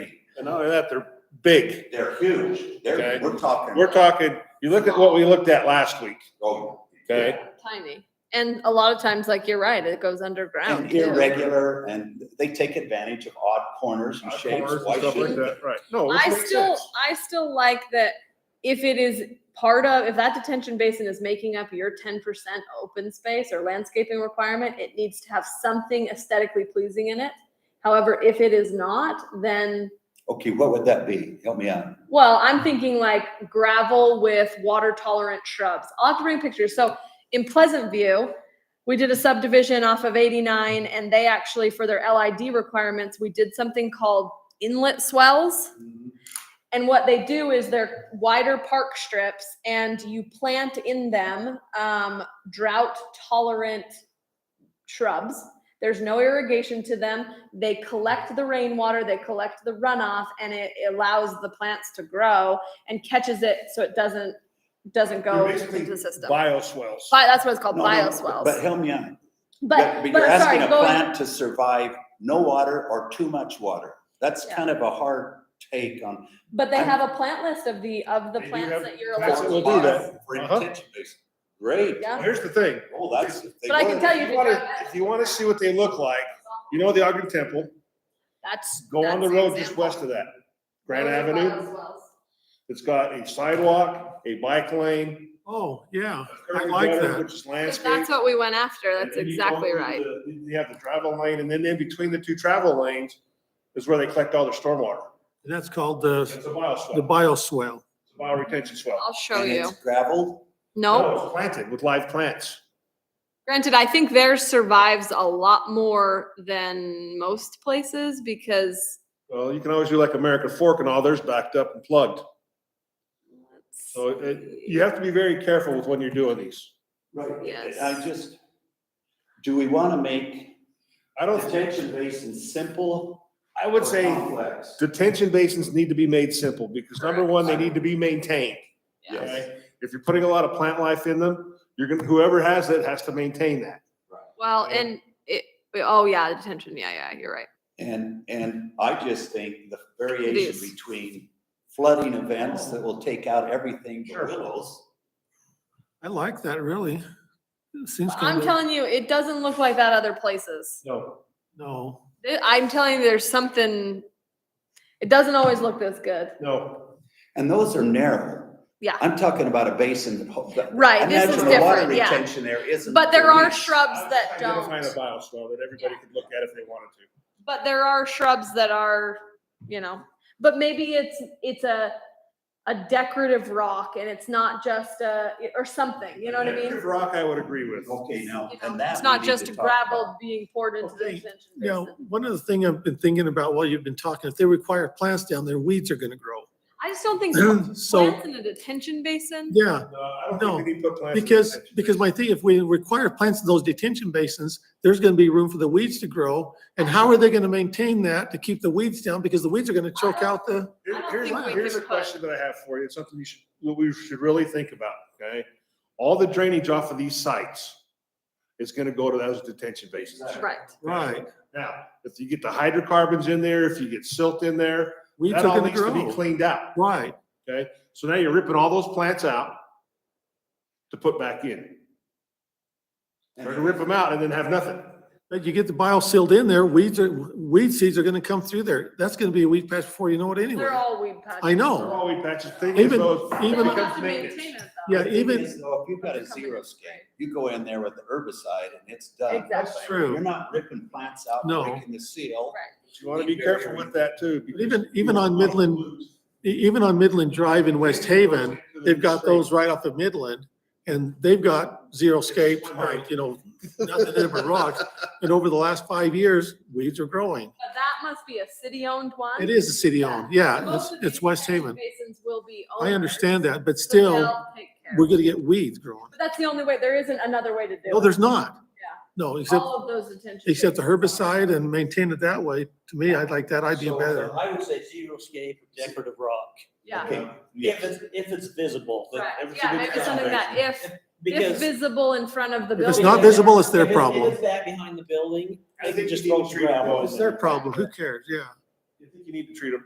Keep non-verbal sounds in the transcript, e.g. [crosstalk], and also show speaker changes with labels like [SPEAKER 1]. [SPEAKER 1] And not only that, they're big.
[SPEAKER 2] They're huge. They're,
[SPEAKER 1] Okay.
[SPEAKER 2] we're talking.
[SPEAKER 1] We're talking, you look at what we looked at last week,
[SPEAKER 2] Oh,
[SPEAKER 1] okay?
[SPEAKER 3] tiny. And a lot of times, like you're right, it goes underground.
[SPEAKER 2] And
[SPEAKER 3] too.
[SPEAKER 2] irregular, and they take advantage of odd corners and shapes.
[SPEAKER 1] Corners and
[SPEAKER 2] Why
[SPEAKER 1] stuff like
[SPEAKER 2] shouldn't they?
[SPEAKER 1] that, Right, no. it
[SPEAKER 3] I
[SPEAKER 1] makes
[SPEAKER 3] still,
[SPEAKER 1] sense.
[SPEAKER 3] I still like that if it is part of, if that detention basin is making up your ten percent open space or landscaping requirement, it needs to have something aesthetically pleasing in it. However, if it is not, then,
[SPEAKER 2] Okay, what would that be? Help me out.
[SPEAKER 3] well, I'm thinking like gravel with water tolerant shrubs. I'll have to bring pictures. So in Pleasant View, we did a subdivision off of eighty-nine and they actually, for their LID requirements, we did something called inlet swells. And what they do is they're wider park strips and you plant in them um, drought tolerant shrubs. There's no irrigation to them. They collect the rainwater, they collect the runoff, and it allows the plants to grow and catches it so it doesn't doesn't go
[SPEAKER 1] You're
[SPEAKER 3] into
[SPEAKER 1] basically
[SPEAKER 3] the system. Bi-
[SPEAKER 1] Bioswales.
[SPEAKER 3] that's what it's called,
[SPEAKER 2] No, no,
[SPEAKER 3] bioswales.
[SPEAKER 2] But help me out.
[SPEAKER 3] But, but
[SPEAKER 2] you're
[SPEAKER 3] I'm sorry,
[SPEAKER 2] asking a
[SPEAKER 3] go,
[SPEAKER 2] plant to survive no water or too much water. That's
[SPEAKER 3] Yeah.
[SPEAKER 2] kind of a hard take on.
[SPEAKER 3] but they
[SPEAKER 2] I'm-
[SPEAKER 3] have a plant list of the, of the
[SPEAKER 1] They do
[SPEAKER 3] plants
[SPEAKER 1] have
[SPEAKER 3] that you're
[SPEAKER 1] plants that
[SPEAKER 3] allowed to
[SPEAKER 1] will
[SPEAKER 3] use.
[SPEAKER 1] do that.
[SPEAKER 2] For
[SPEAKER 1] Uh-huh.
[SPEAKER 2] intention basin. Great.
[SPEAKER 3] Yeah.
[SPEAKER 1] Here's the thing.
[SPEAKER 2] Oh, that's. if they
[SPEAKER 3] But I can
[SPEAKER 2] were-
[SPEAKER 3] tell you
[SPEAKER 1] If
[SPEAKER 3] to
[SPEAKER 1] you wanna-
[SPEAKER 3] grab that.
[SPEAKER 1] if you wanna see what they look like, You know the Ogden Temple,
[SPEAKER 3] That's.
[SPEAKER 1] go on the
[SPEAKER 3] that's
[SPEAKER 1] road
[SPEAKER 3] an
[SPEAKER 1] just
[SPEAKER 3] example.
[SPEAKER 1] west of that, Grant
[SPEAKER 3] Those are
[SPEAKER 1] Avenue.
[SPEAKER 3] bioswales.
[SPEAKER 1] It's got a sidewalk, a bike lane.
[SPEAKER 4] Oh, yeah, I
[SPEAKER 1] curb
[SPEAKER 4] like
[SPEAKER 1] gutter,
[SPEAKER 4] that.
[SPEAKER 1] Which is
[SPEAKER 3] If
[SPEAKER 1] landscaped.
[SPEAKER 3] that's what we went after, that's
[SPEAKER 1] And you go
[SPEAKER 3] exactly
[SPEAKER 1] through
[SPEAKER 3] right.
[SPEAKER 1] the- You have the travel lane, and then in between the two travel lanes is where they collect all their stormwater.
[SPEAKER 4] And that's called the,
[SPEAKER 1] It's a bioswale,
[SPEAKER 4] the
[SPEAKER 1] it's
[SPEAKER 4] bioswale.
[SPEAKER 1] a bioretention swale.
[SPEAKER 3] I'll show
[SPEAKER 2] and
[SPEAKER 3] you.
[SPEAKER 2] it's Gravel.
[SPEAKER 3] No,
[SPEAKER 1] It's Planted with live plants.
[SPEAKER 3] granted, I think theirs survives a lot more than most places because
[SPEAKER 1] Well, you can always do like American Fork and all theirs backed up and plugged. So Oh, it, you have to be very careful with when you're doing these.
[SPEAKER 2] Right.
[SPEAKER 3] Yes.
[SPEAKER 2] I just, do we want to make
[SPEAKER 1] I don't,
[SPEAKER 2] detention basin simple?
[SPEAKER 1] I would
[SPEAKER 2] or
[SPEAKER 1] say.
[SPEAKER 2] complex?
[SPEAKER 1] Detention basins need to be made simple because number one, they need to be maintained.
[SPEAKER 3] Yes.
[SPEAKER 1] okay? If you're putting a lot of plant life in them, you're gonna, whoever has it has to maintain that.
[SPEAKER 3] Well,
[SPEAKER 1] Yeah.
[SPEAKER 3] and it, oh yeah, the detention. Yeah, yeah, you're right.
[SPEAKER 2] And, and I just think the
[SPEAKER 3] is.
[SPEAKER 2] variation between flooding events that will take out everything but willows.
[SPEAKER 4] I like that, really. It Seems
[SPEAKER 3] I'm
[SPEAKER 4] kind of,
[SPEAKER 3] telling you, it doesn't look like that other places.
[SPEAKER 1] No.
[SPEAKER 4] no,
[SPEAKER 3] Th- I'm telling you, there's something, it doesn't always look this good.
[SPEAKER 1] No,
[SPEAKER 2] And those are narrow.
[SPEAKER 3] Yeah.
[SPEAKER 2] I'm talking about a basin that. ho- that-
[SPEAKER 3] Right, this is
[SPEAKER 2] Imagine the water
[SPEAKER 3] different, yeah.
[SPEAKER 2] retention there isn't.
[SPEAKER 3] But there
[SPEAKER 2] for
[SPEAKER 3] are
[SPEAKER 2] weeks.
[SPEAKER 3] shrubs that don't.
[SPEAKER 1] identifying a bioswale that everybody could look at if they wanted to.
[SPEAKER 3] but there are shrubs that are you know but maybe it's it's a a decorative rock and it's not just a or something you know what i mean
[SPEAKER 1] Native Rock, I would agree with.
[SPEAKER 2] Okay, now,
[SPEAKER 3] You know,
[SPEAKER 2] and that.
[SPEAKER 3] it's
[SPEAKER 2] we
[SPEAKER 3] not
[SPEAKER 2] need
[SPEAKER 3] just
[SPEAKER 2] to talk about.
[SPEAKER 3] gravel being poured into the
[SPEAKER 4] Okay,
[SPEAKER 3] detention
[SPEAKER 4] you know,
[SPEAKER 3] basin.
[SPEAKER 4] one of the thing I've been thinking about while you've been talking, if they require plants down there, weeds are gonna grow.
[SPEAKER 3] I just don't
[SPEAKER 4] [clears throat]
[SPEAKER 3] think so.
[SPEAKER 4] So,
[SPEAKER 3] plants in a detention basin.
[SPEAKER 4] yeah,
[SPEAKER 1] No, I don't think we need to put plants. in
[SPEAKER 4] because,
[SPEAKER 1] detention.
[SPEAKER 4] because my thing, if we require plants in those detention basins, there's gonna be room for the weeds to grow. And how are they gonna maintain that to keep the weeds down? Because the weeds are gonna choke out the,
[SPEAKER 1] Here-
[SPEAKER 3] I don't
[SPEAKER 1] Here's,
[SPEAKER 3] think we
[SPEAKER 1] here's a
[SPEAKER 3] could put-
[SPEAKER 1] question that I have for you. It's something you should, that we should really think about, okay? All the drainage off of these sites is gonna go to those detention basins.
[SPEAKER 3] Right.
[SPEAKER 4] right.
[SPEAKER 1] Now, if you get the hydrocarbons in there, if you get silt in there,
[SPEAKER 4] Weeds are
[SPEAKER 1] that all
[SPEAKER 4] gonna
[SPEAKER 1] needs to be
[SPEAKER 4] grow.
[SPEAKER 1] cleaned out,
[SPEAKER 4] Right,
[SPEAKER 1] okay? So now you're ripping all those plants out to put back in. Or to rip them out and then have nothing.
[SPEAKER 4] but you get the bio sealed in there, weeds are, weed seeds are gonna come through there. That's gonna be a weed patch before you know it anyway.
[SPEAKER 3] They're all weed patches.
[SPEAKER 4] I
[SPEAKER 1] They're
[SPEAKER 4] know.
[SPEAKER 1] all weed patches, thing is
[SPEAKER 4] Even-
[SPEAKER 1] though, it
[SPEAKER 4] even-
[SPEAKER 3] We'll have
[SPEAKER 1] becomes
[SPEAKER 3] to maintain
[SPEAKER 1] maintenance.
[SPEAKER 3] it though.
[SPEAKER 4] Yeah,
[SPEAKER 2] The thing
[SPEAKER 4] even-
[SPEAKER 2] is, though, If you've got a zero scape, you go in there with the herbicide and it's done.
[SPEAKER 3] Exactly.
[SPEAKER 4] That's true.
[SPEAKER 2] You're not ripping plants out,
[SPEAKER 4] No.
[SPEAKER 2] breaking the seal.
[SPEAKER 3] Right.
[SPEAKER 1] You wanna be careful with that too. because
[SPEAKER 4] Even-
[SPEAKER 1] you
[SPEAKER 4] even on
[SPEAKER 1] don't wanna
[SPEAKER 4] Midland-
[SPEAKER 1] lose.
[SPEAKER 4] E- Even on Midland Drive in West Haven, they've got those right off of Midland, and they've got zero scape, right, you know, nothing in but rocks. And over the last five years, weeds are growing.
[SPEAKER 3] But that must be a city-owned one.
[SPEAKER 4] It is a city-owned,
[SPEAKER 3] Most
[SPEAKER 4] yeah, it's,
[SPEAKER 3] of these
[SPEAKER 4] it's West
[SPEAKER 3] detention
[SPEAKER 4] Haven.
[SPEAKER 3] Basins will be.
[SPEAKER 4] I
[SPEAKER 3] owners,
[SPEAKER 4] understand that, but
[SPEAKER 3] so
[SPEAKER 4] still,
[SPEAKER 3] they'll take care
[SPEAKER 4] we're
[SPEAKER 3] of it.
[SPEAKER 4] gonna get weeds growing.
[SPEAKER 3] But that's the only way. There isn't another way to do it.
[SPEAKER 4] No, there's not.
[SPEAKER 3] Yeah.
[SPEAKER 4] No, except,
[SPEAKER 3] All of those detention.
[SPEAKER 4] except the
[SPEAKER 3] basins are.
[SPEAKER 4] herbicide and maintain it that way. To me, I'd like that idea
[SPEAKER 5] So, uh,
[SPEAKER 4] better.
[SPEAKER 5] I would say zero scape or decorative rock,
[SPEAKER 3] Yeah.
[SPEAKER 2] Okay,
[SPEAKER 5] if it's, if it's visible. that
[SPEAKER 3] Right,
[SPEAKER 5] if it's a
[SPEAKER 3] yeah,
[SPEAKER 5] good
[SPEAKER 3] maybe something that
[SPEAKER 5] foundation.
[SPEAKER 3] if, if
[SPEAKER 5] Because.
[SPEAKER 3] visible in front of the building.
[SPEAKER 4] If it's not visible, it's their
[SPEAKER 5] if If
[SPEAKER 4] problem.
[SPEAKER 5] it's that behind the building,
[SPEAKER 1] I
[SPEAKER 5] I
[SPEAKER 1] think
[SPEAKER 5] can just
[SPEAKER 1] you need
[SPEAKER 5] throw
[SPEAKER 1] to
[SPEAKER 5] some
[SPEAKER 1] treat it
[SPEAKER 5] gravel.
[SPEAKER 1] as-
[SPEAKER 5] in
[SPEAKER 4] It's
[SPEAKER 5] there.
[SPEAKER 4] their problem, who cares, yeah.
[SPEAKER 1] I think you need to treat them